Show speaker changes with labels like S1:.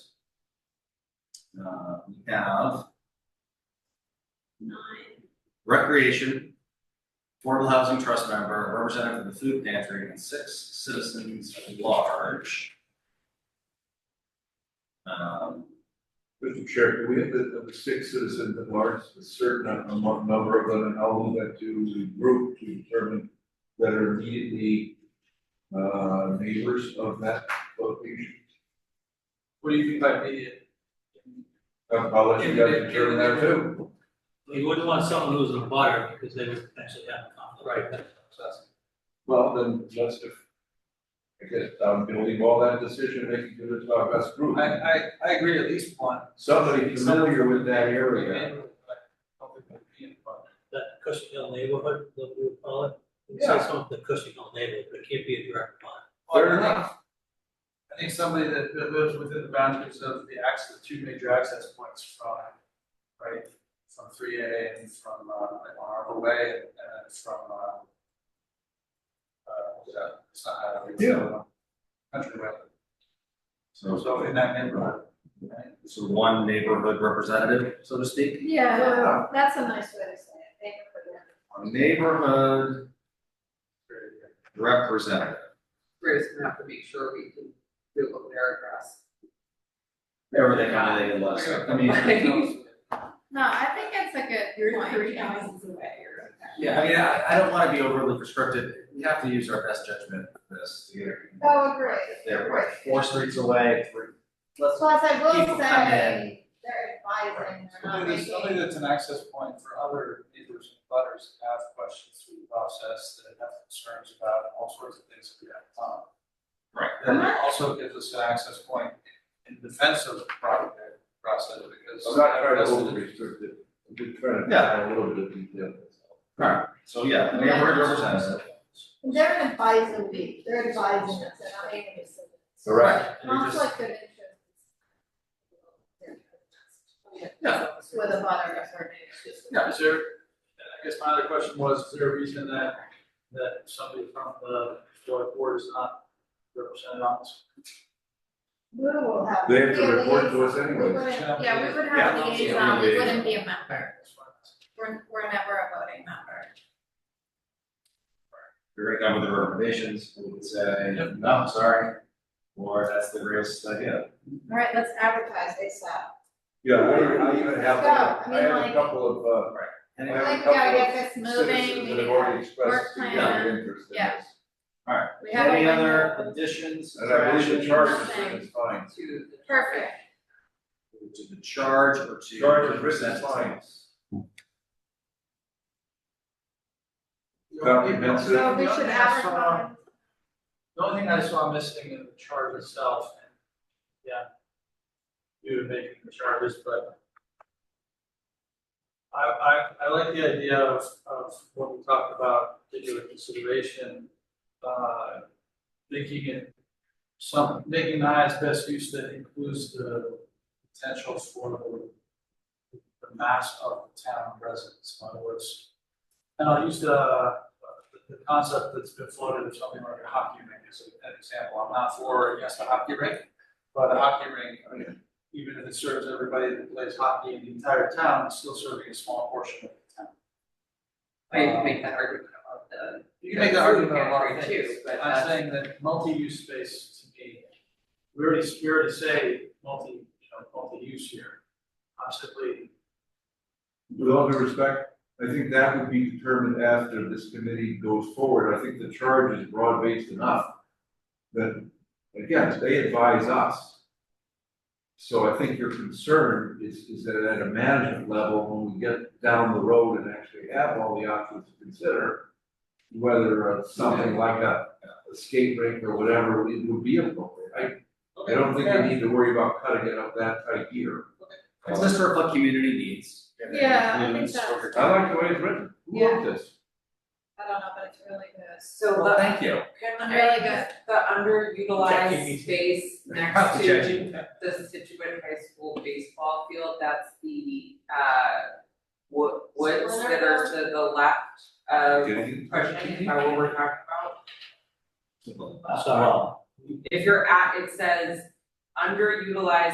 S1: Uh, we have
S2: nine,
S1: recreation, affordable housing trust member, representative of the food pantry, and six citizens at large. Um,
S3: Mr. Chair, can we have the, of the six citizens at large, a certain amount, number of them, and I'll move that to the group to determine that are immediately uh, neighbors of that location.
S4: What do you mean by immediate?
S3: Uh, I'll let you guys determine that too.
S5: You wouldn't want someone who's in a butter because they would potentially have a conflict.
S4: Right, that's, that's,
S3: Well, then, let's just, I guess, um, we'll leave all that decision making to the top best group.
S4: I, I, I agree at least one.
S3: Somebody familiar with that area.
S4: Neighborhood, like, something like being a part
S5: That Cushing Hill neighborhood, what we would call it. It's
S3: Yeah.
S5: some of the Cushing Hill neighborhood, but it can't be a direct butter.
S4: of it.
S3: Fair enough.
S4: I think somebody that, that lives within the boundaries of the access, two major access points from, right, from three A and from, uh, like on Arbor Way and then from, uh, uh, what's that? it's not highway, it's, uh, Country Way,
S1: so,
S4: so in that neighborhood, right?
S1: so one neighborhood representative, so to speak,
S2: yeah,
S3: Yeah.
S2: that's a nice way to say it, thank you for that.
S1: a neighborhood representative.
S6: We're just gonna have to make sure we can Google their address.
S1: Everything on the list, I mean,
S2: No, I think it's a good point.
S6: away, you're okay.
S1: yeah, I mean, I, I don't wanna be overly prescriptive, we have to use our best judgment for this, to get everything.
S2: Oh, agree.
S1: If They're like four streets away, three, let's
S2: Plus, I will
S1: People come
S2: say, they're advising, they're not
S4: Something that's, something
S2: making,
S4: that's an access point for other neighbors and butters that have questions through the process, that have concerns about all sorts of things that we have on.
S1: Right.
S4: And it also gives us an access point in defense of the project process, because.
S3: I'm not trying to over restrict it, I'm just trying to add a little bit of detail.
S1: Alright, so yeah, neighborhood representative.
S2: they're advising me, they're advising us, they're not making a decision.
S3: Correct.
S2: Conflict of interest.
S4: Yeah.
S2: With a butter or something.
S4: Yeah, is there, I guess my other question was, is there a reason that, that somebody from the historic board is not represented on this?
S2: We will have.
S3: They have
S2: we
S3: to report to us
S2: liaison. We
S3: anyway.
S2: wouldn't- Yeah, we would have
S4: Yeah.
S2: a liaison, we
S3: Yeah.
S2: wouldn't be a member,
S4: That's why I'm asking.
S2: we're, we're never a voting member.
S1: You're right now with the reservations, we would say, no, sorry, or that's the greatest idea.
S2: All right, let's advertise ASAP.
S3: Yeah, I I even have,
S2: Yeah,
S3: I
S2: I mean,
S3: have
S2: like-
S3: a couple of, uh,
S1: And
S3: I
S1: it-
S3: have a
S2: Like, we
S3: couple
S2: gotta
S3: of
S2: get this moving,
S3: citizens
S2: we
S3: that
S2: need
S3: have already
S2: a
S3: expressed
S2: work
S3: significant
S2: plan.
S3: interest in
S2: yeah.
S3: this.
S2: We have
S1: Any
S2: a-
S1: other additions?
S3: And I believe
S1: corrections
S3: the charge is,
S2: Nothing.
S3: is fine.
S6: To the-
S2: Perfect,
S1: To the charge or to.
S3: Charge is written is fine. Well, we meant to-
S4: The
S2: so
S4: only
S2: we
S4: thing
S2: should
S4: I saw-
S2: advertise,
S4: The only thing I saw missing in the chart itself, and yeah. Due to making the charters, but. I, I, I like the idea of, of what we talked about, taking into consideration, uh, making it. Some, making the highest best use that includes the potential for the. The mass of town residents, in other words. And I'll use the, the concept that's been floated of something like a hockey rink as an example, I'm not for, yes, a hockey rink. But a hockey rink, I mean, even if it serves everybody that plays hockey in the entire town, it's still serving a small portion of the town.
S6: I mean, you make that argument about the.
S4: You can make the argument
S6: food
S4: about a lot of
S6: pantry
S4: things,
S6: too,
S4: but
S6: but
S4: I'm
S6: that's-
S4: saying that multi-use space to me, we already, we already say multi, you know, multi-use here. I'm simply
S3: With all due respect, I think that would be determined after this committee goes forward, I think the charge is broad-based enough. That, again, they advise us. So I think your concern is, is that at a management level, when we get down the road and actually have all the options to consider. Whether uh, something like a, a skate rink or whatever would would be appropriate, I, I don't think we need to worry about cutting it up that tight here.
S1: It's just to reflect community needs. and it
S2: Yeah, I think
S1: includes
S2: that's-
S1: over
S3: I
S1: time.
S3: like the way it's written, who wrote this?
S2: I don't know, but it's really good.
S6: So
S1: Well,
S6: the,
S1: thank you.
S6: can
S2: Really
S6: I,
S2: good.
S6: the underutilized space next
S1: Check.
S6: to the Situate High School baseball field, that's the, uh, wo- woods that are to the left of
S3: Getting-
S6: Cushing, uh, what we're talking about.
S1: So, well,
S6: If you're at, it says underutilized